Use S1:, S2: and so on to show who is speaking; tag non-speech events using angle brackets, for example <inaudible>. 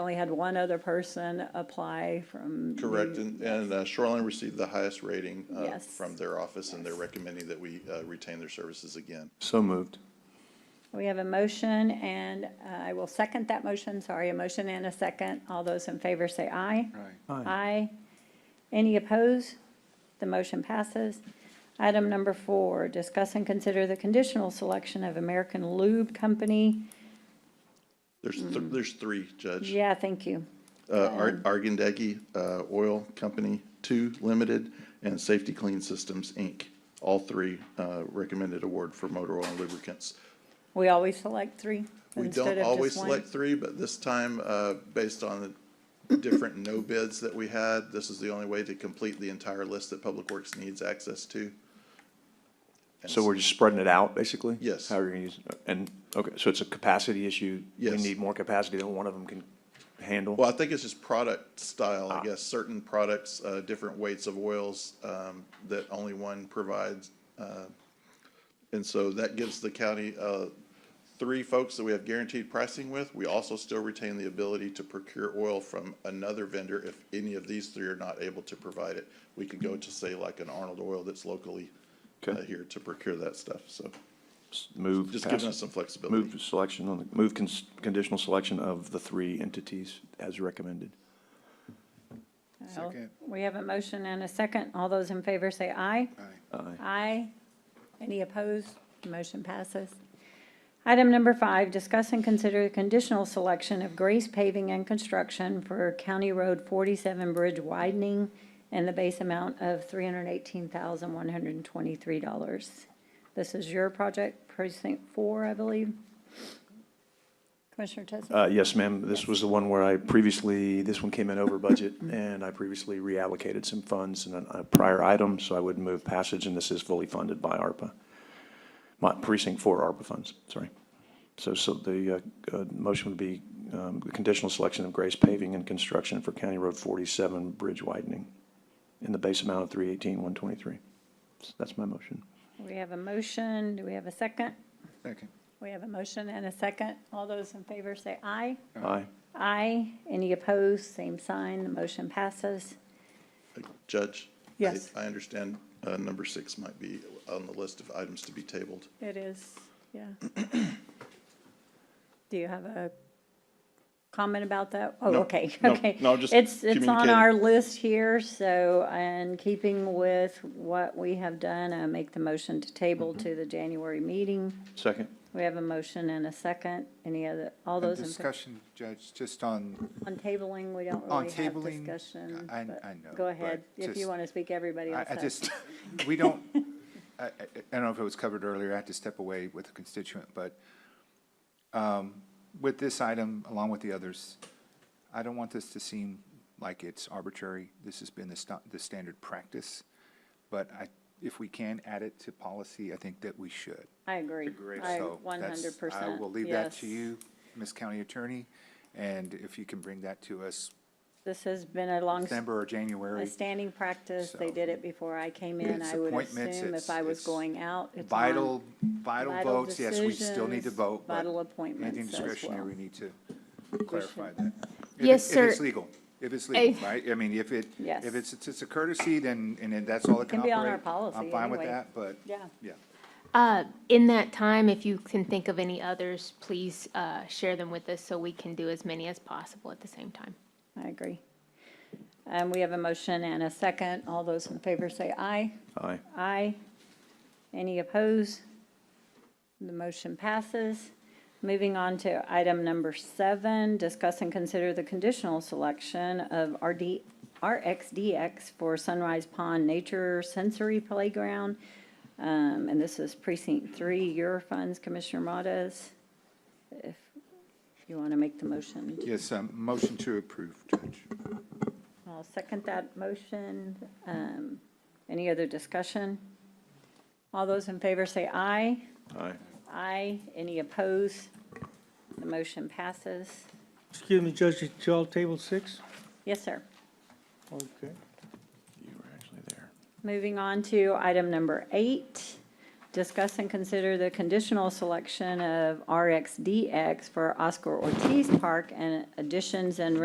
S1: Only had one other person apply from. the-
S2: Correct, and, and uh, Shoreline received the highest rating uh,
S1: Yes.
S2: from their office, and they're recommending that we uh, retain their services again.
S3: So moved.
S1: We have a motion and uh, I will second that motion, sorry, a motion and a second. All those in favor say aye.
S3: Aye.
S1: Aye. Any opposed? The motion passes. Item number four, discuss and consider the conditional selection of American Lube Company.
S2: There's, th- there's three, Judge.
S1: Mm-hmm. Yeah, thank you.
S2: Uh, Ar- Argandegi uh, Oil Company, Two Limited, and Safety Clean Systems, Inc. All three uh, recommended award for motor oil and lubricants.
S1: We always select three
S2: We
S1: instead
S2: don't
S1: of
S2: always
S1: just one.
S2: select three, but this time, uh, based on the different no bids that we had, this is the only way to complete the entire list that Public Works needs access to. And
S3: So we're just spreading it out, basically?
S2: Yes.
S3: How are you gonna use, and, okay, so it's a capacity issue? We
S2: Yes.
S3: need more capacity than one of them can handle?
S2: Well, I think it's just product style,
S3: Ah.
S2: I guess, certain products, uh, different weights of oils, um, that only one provides. uh, And so that gives the county, uh, three folks that we have guaranteed pricing with. We also still retain the ability to procure oil from another vendor if any of these three are not able to provide it. We could go to say like an Arnold Oil that's locally uh,
S3: Okay.
S2: here to procure that stuff, so
S3: S- Move.
S2: just giving
S3: pass-
S2: us some flexibility.
S3: Move selection on, the move cons- conditional selection of the three entities as recommended.
S1: Well, We have a motion and a second. All those in favor say aye.
S3: Aye.
S1: Aye. Any opposed? Motion passes. Item number five, discuss and consider the conditional selection of Grace Paving and Construction for County Road 47 Bridge widening and the base amount of $318,123. This is your project, precinct four, I believe. Commissioner Tesman?
S3: Uh, yes, ma'am, this was the one where I previously, this one came in over budget, and I previously reallocated some funds in a a prior item, so I would move passage, and this is fully funded by ARPA. My precinct four ARPA funds, sorry. So, so the, uh, uh, motion would be, um, conditional selection of Grace Paving and Construction for County Road forty-seven bridge widening in the base amount of three eighteen, one twenty-three. That's my motion.
S1: We have a motion. Do we have a second?
S4: Second.
S1: We have a motion and a second. All those in favor say aye.
S3: Aye.
S1: Aye. Any opposed? Same sign. The motion passes.
S2: Judge? I-
S1: Yes.
S2: I understand uh, number six might be on the list of items to be tabled.
S1: It is, yeah. Do you have a comment about that? Oh,
S2: No,
S1: okay,
S2: no,
S1: okay.
S2: no, just
S1: It's, it's on
S2: communicating.
S1: our list here, so in keeping with what we have done, I make the motion to table
S4: Mm-hmm.
S1: to the January meeting.
S3: Second.
S1: We have a motion and a second. Any other, all
S4: And
S1: those in, fa-
S4: discussion, Judge, just on,
S1: on tabling, we don't
S4: On
S1: really have
S4: tabling,
S1: discussion.
S4: I-
S1: but
S4: I know,
S1: Go
S4: but
S1: ahead. If you
S4: just-
S1: want to speak, everybody
S4: I
S1: else
S4: I
S1: has.
S4: just, <laughs> we don't, I, I I don't know if it was covered earlier, I had to step away with a constituent, but um, with this item, along with the others, I don't want this to seem like it's arbitrary. This has been the, sta- the standard practice, but I, if we can add it to policy, I think that we should.
S1: I agree. I
S4: So
S1: one
S4: that's-
S1: hundred percent.
S4: I will leave that to you, Ms. County Attorney, and if you can bring that to us
S1: This has been a long,
S4: December or
S1: a
S4: January.
S1: standing practice. They
S4: So-
S1: did it before I came in.
S4: It's
S1: I would
S4: appointments,
S1: assume if
S4: it's-
S1: I was
S4: it's
S1: going out, it's on.
S4: Vital, vital
S1: vital
S4: votes, yes, we still need to
S1: decisions,
S4: vote, but
S1: vital appointments
S4: anything
S1: as
S4: discretionary,
S1: well.
S4: we need to clarify that. If it-
S5: Yes,
S4: If it's
S5: sir.
S4: legal, if it's legal,
S5: Eh.
S4: right? I mean, if it,
S1: Yes.
S4: if it's, it's a courtesy, then, and then that's all that can
S1: Can be
S4: operate.
S1: on our policy
S4: I'm fine with
S1: anyway.
S4: that, but,
S1: Yeah.
S4: yeah.
S5: Uh, in that time, if you can think of any others, please, uh, share them with us so we can do as many as possible at the same time.
S1: I agree. Um, we have a motion and a second. All those in favor say aye.
S3: Aye.
S1: Aye. Any opposed? The motion passes. Moving on to item number seven, discuss and consider the conditional selection of RD, RXDX for Sunrise Pond Nature Sensory Playground. Um, and this is precinct three, your funds, Commissioner Modas. If you want to make the motion,
S4: Yes, um, motion to approve, Judge.
S1: I'll second that motion. Um, any other discussion? All those in favor say aye.
S3: Aye.
S1: Aye. Any opposed? The motion passes.
S6: Excuse me, Judge, did y'all table six?
S1: Yes, sir.
S6: Okay.
S3: You were actually there.
S1: Moving on to item number eight, Discuss and consider the conditional selection of RXDX for Oscar Ortiz Park and additions and